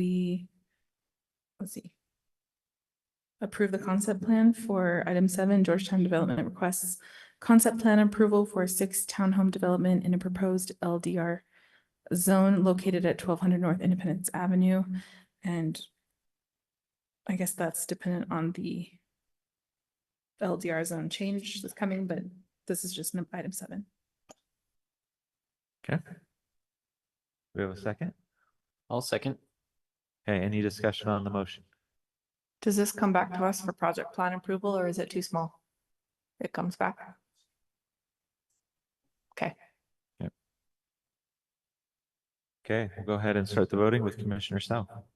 we, let's see. Approve the concept plan for item seven Georgetown Development requests concept plan approval for six townhome development in a proposed LDR zone located at twelve hundred North Independence Avenue. And I guess that's dependent on the LDR zone change that's coming, but this is just an item seven. Okay. We have a second? I'll second. Okay, any discussion on the motion? Does this come back to us for project plan approval or is it too small? It comes back. Okay, we'll go ahead and start the voting with Commissioner Sell.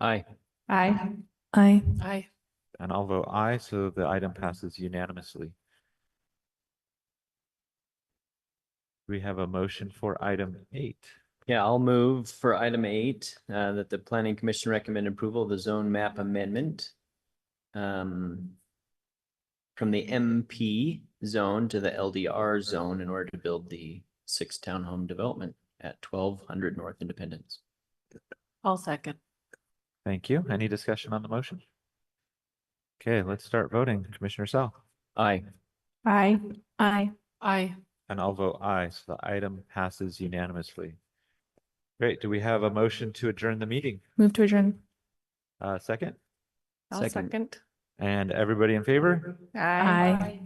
Aye. Aye. Aye. Aye. And I'll vote aye, so the item passes unanimously. We have a motion for item eight. Yeah, I'll move for item eight, uh, that the planning commission recommend approval of the zone map amendment. Um. From the MP zone to the LDR zone in order to build the six townhome development at twelve hundred North Independence. I'll second. Thank you. Any discussion on the motion? Okay, let's start voting. Commissioner Sell. Aye. Aye. Aye. Aye. And I'll vote aye, so the item passes unanimously. Great, do we have a motion to adjourn the meeting? Move to adjourn. Uh, second? I'll Second. second. And everybody in favor? Aye.